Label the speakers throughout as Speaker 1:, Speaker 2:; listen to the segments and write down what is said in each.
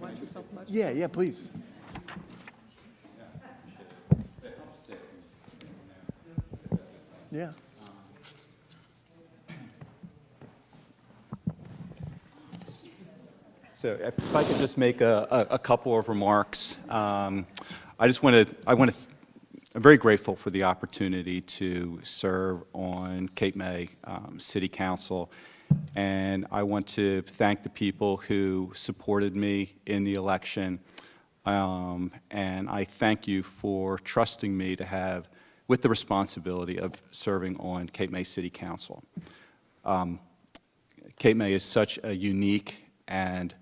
Speaker 1: Watch yourself, watch.
Speaker 2: Yeah, yeah, please. Yeah.
Speaker 3: So if I could just make a, a a couple of remarks. Um, I just want to, I want to, I'm very grateful for the opportunity to serve on Cape May um, City Council. And I want to thank the people who supported me in the election. Um, And I thank you for trusting me to have, with the responsibility of serving on Cape May City Council. Cape May is such a unique and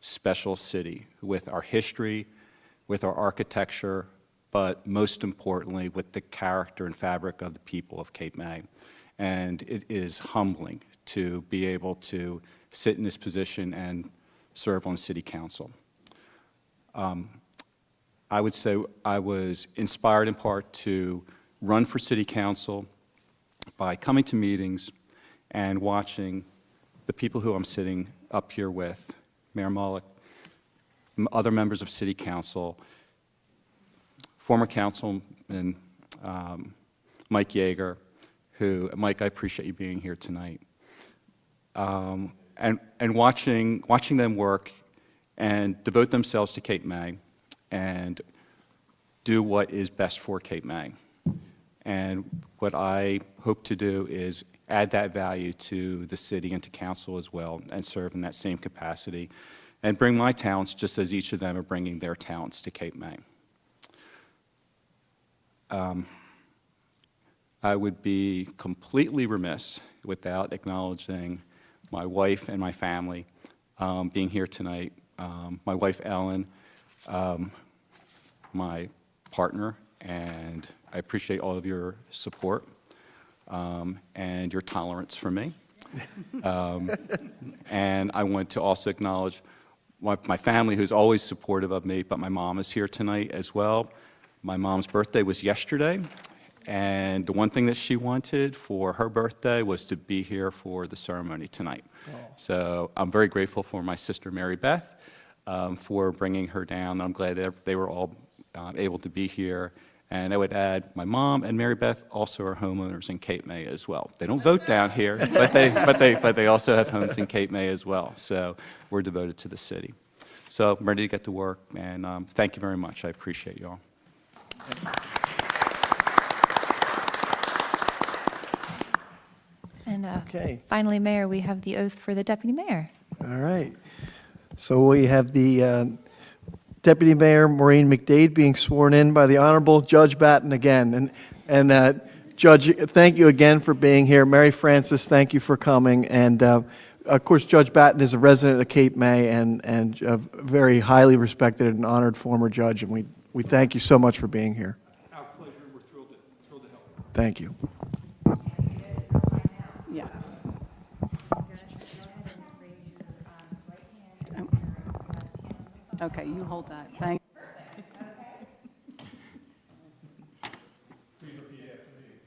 Speaker 3: special city with our history, with our architecture, but most importantly, with the character and fabric of the people of Cape May. And it is humbling to be able to sit in this position and serve on city council. I would say I was inspired in part to run for city council by coming to meetings and watching the people who I'm sitting up here with, Mayor Mullock, m- other members of city council, former councilman um, Mike Yeager, who, Mike, I appreciate you being here tonight um, and, and watching, watching them work and devote themselves to Cape May and do what is best for Cape May. And what I hope to do is add that value to the city and to council as well and serve in that same capacity and bring my talents just as each of them are bringing their talents to Cape May. I would be completely remiss without acknowledging my wife and my family um, being here tonight. Um, my wife, Ellen, um, my partner, and I appreciate all of your support um, and your tolerance for me. And I want to also acknowledge my, my family, who's always supportive of me, but my mom is here tonight as well. My mom's birthday was yesterday, and the one thing that she wanted for her birthday was to be here for the ceremony tonight. So I'm very grateful for my sister Mary Beth um, for bringing her down. I'm glad that they were all uh, able to be here. And I would add, my mom and Mary Beth also are homeowners in Cape May as well. They don't vote down here, but they, but they, but they also have homes in Cape May as well. So we're devoted to the city. So I'm ready to get to work, and um, thank you very much. I appreciate you all.
Speaker 4: And uh,
Speaker 2: Okay.
Speaker 4: finally, Mayor, we have the oath for the deputy mayor.
Speaker 2: All right. So we have the uh, Deputy Mayor Maureen McDade being sworn in by the Honorable Judge Batten again. And, and uh, Judge, thank you again for being here. Mary Frances, thank you for coming. And uh, of course, Judge Batten is a resident of Cape May and, and a very highly respected and honored former judge. And we, we thank you so much for being here.
Speaker 5: Our pleasure, and we're thrilled to, thrilled to help.
Speaker 2: Thank you.
Speaker 1: Yeah. Okay, you hold that. Thank,
Speaker 5: Please repeat after me.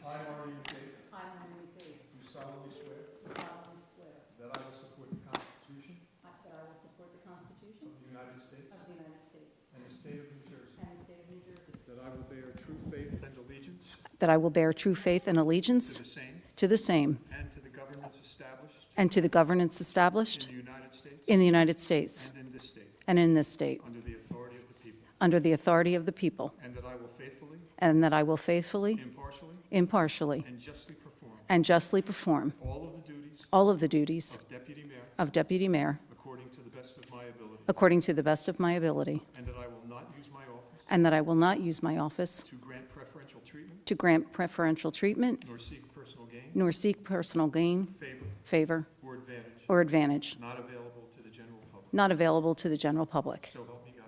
Speaker 5: I, Maureen Dave. I, Maureen Do solemnly swear. solemnly swear. That I will support the Constitution. That I will support the Constitution. Of the United States. Of the United States. And the state of New Jersey. And the state of New Jersey. That I will bear true faith and allegiance
Speaker 1: that I will bear true faith and
Speaker 5: to
Speaker 1: allegiance
Speaker 5: the same
Speaker 1: to the same
Speaker 5: and to the governments established
Speaker 1: and to the governance established
Speaker 5: in the United States.
Speaker 1: in the United States
Speaker 5: And in this state,
Speaker 1: and in this state,
Speaker 5: under the authority of the people.
Speaker 1: under the authority of the people,
Speaker 5: And that I will faithfully,
Speaker 1: and that I will faithfully,
Speaker 5: impartially,
Speaker 1: impartially,
Speaker 5: and justly perform
Speaker 1: and justly perform
Speaker 5: all of the duties
Speaker 1: all of the duties
Speaker 5: of deputy mayor
Speaker 1: of deputy mayor
Speaker 5: according to the best of my ability.
Speaker 1: according to the best of my ability,
Speaker 5: And that I will not use my office
Speaker 1: and that I will not use my office
Speaker 5: to grant preferential treatment
Speaker 1: to grant preferential treatment
Speaker 5: nor seek personal gain,
Speaker 1: nor seek personal gain,
Speaker 5: favor,
Speaker 1: favor,
Speaker 5: or advantage
Speaker 1: or advantage
Speaker 5: not available to the general public.
Speaker 1: not available to the general public.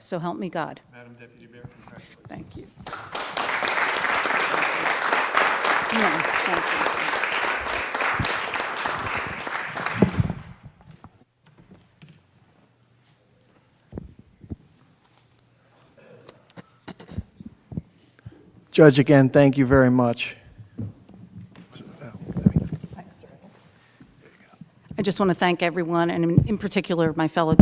Speaker 5: So help me God.
Speaker 1: So help me God.
Speaker 5: Madam Deputy Mayor, congratulations.
Speaker 1: Thank you. No, thank you.
Speaker 2: Judge, again, thank you very much.
Speaker 1: I just want to thank everyone, and in- in particular, my fellow